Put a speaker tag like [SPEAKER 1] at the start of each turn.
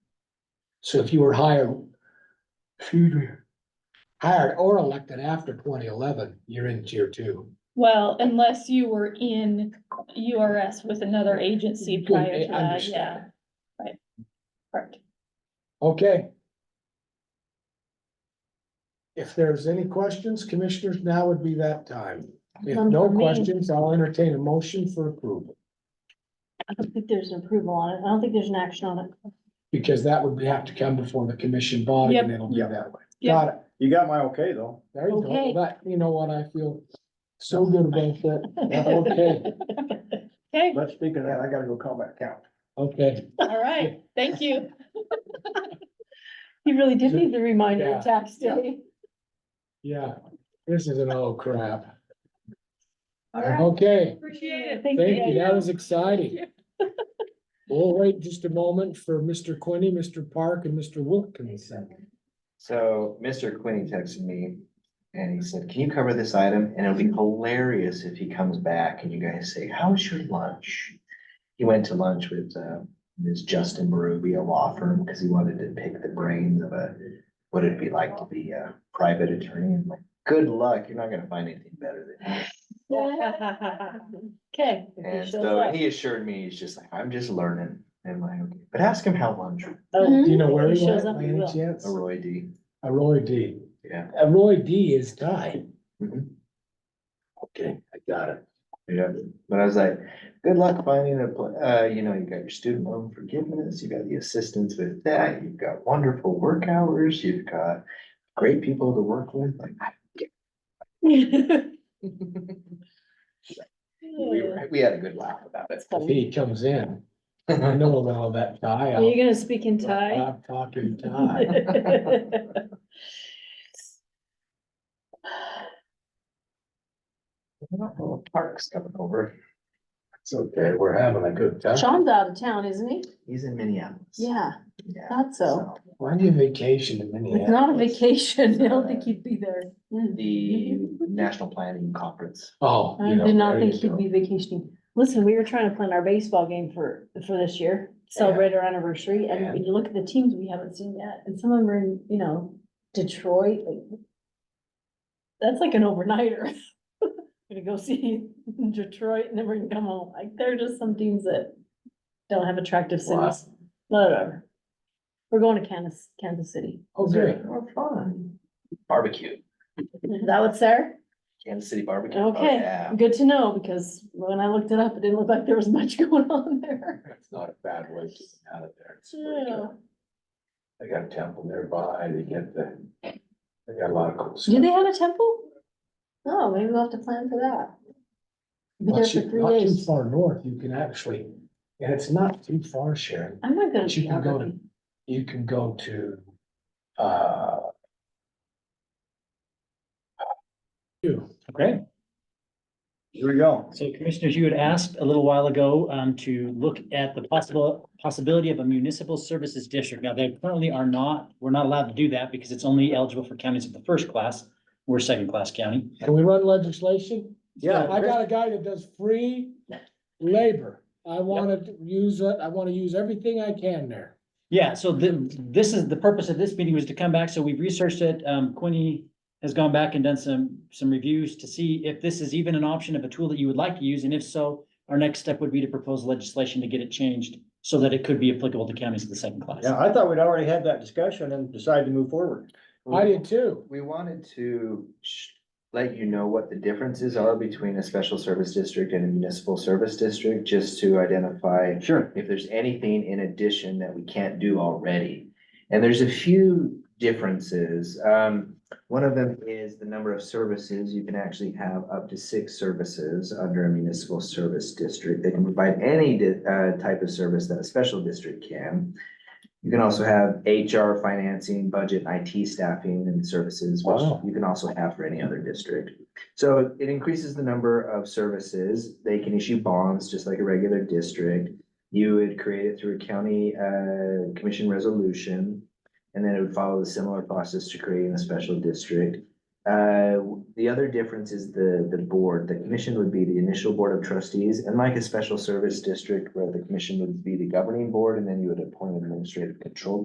[SPEAKER 1] So if you were hired, excuse me, hired or elected after twenty eleven, you're in tier two.
[SPEAKER 2] Well, unless you were in URS with another agency
[SPEAKER 1] Good,
[SPEAKER 2] prior
[SPEAKER 1] I
[SPEAKER 2] to that,
[SPEAKER 1] understand.
[SPEAKER 2] yeah. Right. Correct.
[SPEAKER 1] Okay. If there's any questions, commissioners, now would be that time. If
[SPEAKER 3] None
[SPEAKER 1] no
[SPEAKER 3] for me.
[SPEAKER 1] questions, I'll entertain a motion for approval,
[SPEAKER 3] I don't think there's an approval on it. I don't think there's an action on it.
[SPEAKER 1] because that would have to come before the commission body and
[SPEAKER 2] Yep.
[SPEAKER 1] it'll be
[SPEAKER 4] Yep.
[SPEAKER 1] that way.
[SPEAKER 2] Yep.
[SPEAKER 1] Got it.
[SPEAKER 4] You got my okay though.
[SPEAKER 1] There you go.
[SPEAKER 3] Okay.
[SPEAKER 1] But you know what? I feel so good about that. Okay,
[SPEAKER 2] Okay,
[SPEAKER 4] Let's speak of that. I gotta go call back count.
[SPEAKER 1] okay.
[SPEAKER 2] all right, thank you.
[SPEAKER 3] You really did need the reminder
[SPEAKER 1] Yeah.
[SPEAKER 3] of tax day.
[SPEAKER 1] Yeah, this is an old crap.
[SPEAKER 3] All right.
[SPEAKER 1] Okay,
[SPEAKER 2] Appreciate it.
[SPEAKER 1] thank you. That was exciting. We'll wait just a moment for Mr. Quinney, Mr. Park and Mr. Wilkinson.
[SPEAKER 5] So Mr. Quinney texted me and he said, can you cover this item? And it'll be hilarious if he comes back and you guys say, how was your lunch? He went to lunch with uh, Ms. Justin Ruby, a law firm, because he wanted to pick the brains of a, what it'd be like to be a private attorney. I'm like, good luck, you're not gonna find anything better than that.
[SPEAKER 3] Okay. if he
[SPEAKER 5] And
[SPEAKER 3] shows
[SPEAKER 5] so
[SPEAKER 3] up.
[SPEAKER 5] he assured me, he's just like, I'm just learning. And I'm like, okay, but ask him how lunch,
[SPEAKER 3] Oh,
[SPEAKER 1] Do you know
[SPEAKER 3] if
[SPEAKER 1] where he
[SPEAKER 3] shows
[SPEAKER 1] went
[SPEAKER 3] up,
[SPEAKER 1] by
[SPEAKER 3] we
[SPEAKER 1] any
[SPEAKER 3] will.
[SPEAKER 1] chance?
[SPEAKER 5] Roy D.
[SPEAKER 1] A Roy D.
[SPEAKER 5] Yeah.
[SPEAKER 1] A Roy D is tied.
[SPEAKER 5] Mhm.
[SPEAKER 1] Okay, I got it.
[SPEAKER 5] Yeah, but I was like, good luck finding a, pla- uh, you know, you got your student loan forgiveness, you got the assistance with that, you've got wonderful work hours, you've got great people to work with, like. I- We, were- we had a good laugh about it.
[SPEAKER 1] If he comes in, I know about that tie.
[SPEAKER 3] Are you gonna speak in Thai?
[SPEAKER 1] I'm talking tie. uh,
[SPEAKER 5] Oh, Park's coming over,
[SPEAKER 1] It's okay, we're having a good time.
[SPEAKER 3] Sean's out of town, isn't he?
[SPEAKER 5] he's in Minneapolis.
[SPEAKER 3] Yeah,
[SPEAKER 5] Yeah,
[SPEAKER 3] thought so.
[SPEAKER 1] Why do you vacation in Minneapolis?
[SPEAKER 3] It's not a vacation. I don't think he'd be there. Mm.
[SPEAKER 5] The National Planning Conference.
[SPEAKER 1] Oh.
[SPEAKER 3] I
[SPEAKER 1] you know,
[SPEAKER 3] did not
[SPEAKER 1] there you
[SPEAKER 3] think he'd
[SPEAKER 1] go.
[SPEAKER 3] be vacationing. Listen, we were trying to plan our baseball game for, for this year, celebrate our anniversary, and when you look at the teams we haven't seen yet, and some of them are in, you know, Detroit, like. That's like an overnighter. Gonna go see Detroit and then we're gonna come home. Like, there are just some teams that don't have attractive
[SPEAKER 1] Wow.
[SPEAKER 3] cities, whatever. We're going to Kansas, Kansas City.
[SPEAKER 1] Oh, good.
[SPEAKER 5] Oh, fun. Barbecue,
[SPEAKER 3] Is that what's there?
[SPEAKER 5] Kansas City barbecue. Oh,
[SPEAKER 3] Okay.
[SPEAKER 5] yeah.
[SPEAKER 3] Good to know, because when I looked it up, it didn't look like there was much going on there.
[SPEAKER 1] That's not a bad way to get out of there. It's pretty
[SPEAKER 3] Yeah.
[SPEAKER 1] good. They got a temple nearby, they get the, they got a lot of cool
[SPEAKER 3] Do
[SPEAKER 1] stuff.
[SPEAKER 3] they have a temple? No, Oh, maybe we'll have to plan for that. Be there
[SPEAKER 1] Not
[SPEAKER 3] for
[SPEAKER 1] too,
[SPEAKER 3] three
[SPEAKER 1] not too
[SPEAKER 3] days.
[SPEAKER 1] far north, you can actually, and it's not too far, Sharon.
[SPEAKER 3] I'm not gonna.
[SPEAKER 1] But you
[SPEAKER 3] be
[SPEAKER 1] can
[SPEAKER 3] out
[SPEAKER 1] go
[SPEAKER 3] with
[SPEAKER 1] to- You can go to, uh. You, okay?
[SPEAKER 4] Here we go.
[SPEAKER 6] So commissioners, you had asked a little while ago um, to look at the possible, possibility of a municipal services district. Now, they currently are not, we're not allowed to do that because it's only eligible for counties of the first class. We're second class county.
[SPEAKER 1] Can we run legislation?
[SPEAKER 4] Yeah.
[SPEAKER 1] I got a guy that does free labor. I wanna use, it- I wanna use everything I can there.
[SPEAKER 6] Yeah, so the, this is, the purpose of this meeting was to come back, so we've researched it, um, Quinny has gone back and done some, some reviews to see if this is even an option of a tool that you would like to use, and if so, our next step would be to propose legislation to get it changed so that it could be applicable to counties of the second class.
[SPEAKER 4] Yeah, I thought we'd already had that discussion and decided to move forward.
[SPEAKER 1] I did too.
[SPEAKER 5] We wanted to sh- let you know what the differences are between a special service district and a municipal service district, just to identify
[SPEAKER 4] Sure.
[SPEAKER 5] if there's anything in addition that we can't do already. And there's a few differences. Um, one of them is the number of services. You can actually have up to six services under a municipal service district. They can provide any di- uh, type of service that a special district can. You can also have HR, financing, budget, IT staffing and services, which
[SPEAKER 1] Wow.
[SPEAKER 5] you can also have for any other district. So it increases the number of services. They can issue bonds just like a regular district. You would create it through a county uh commission resolution. And then it would follow the similar process to creating a special district. Uh, the other difference is the the board. The commission would be the initial board of trustees, and like a special service district where the commission would be the governing board, and then you would appoint an administrative control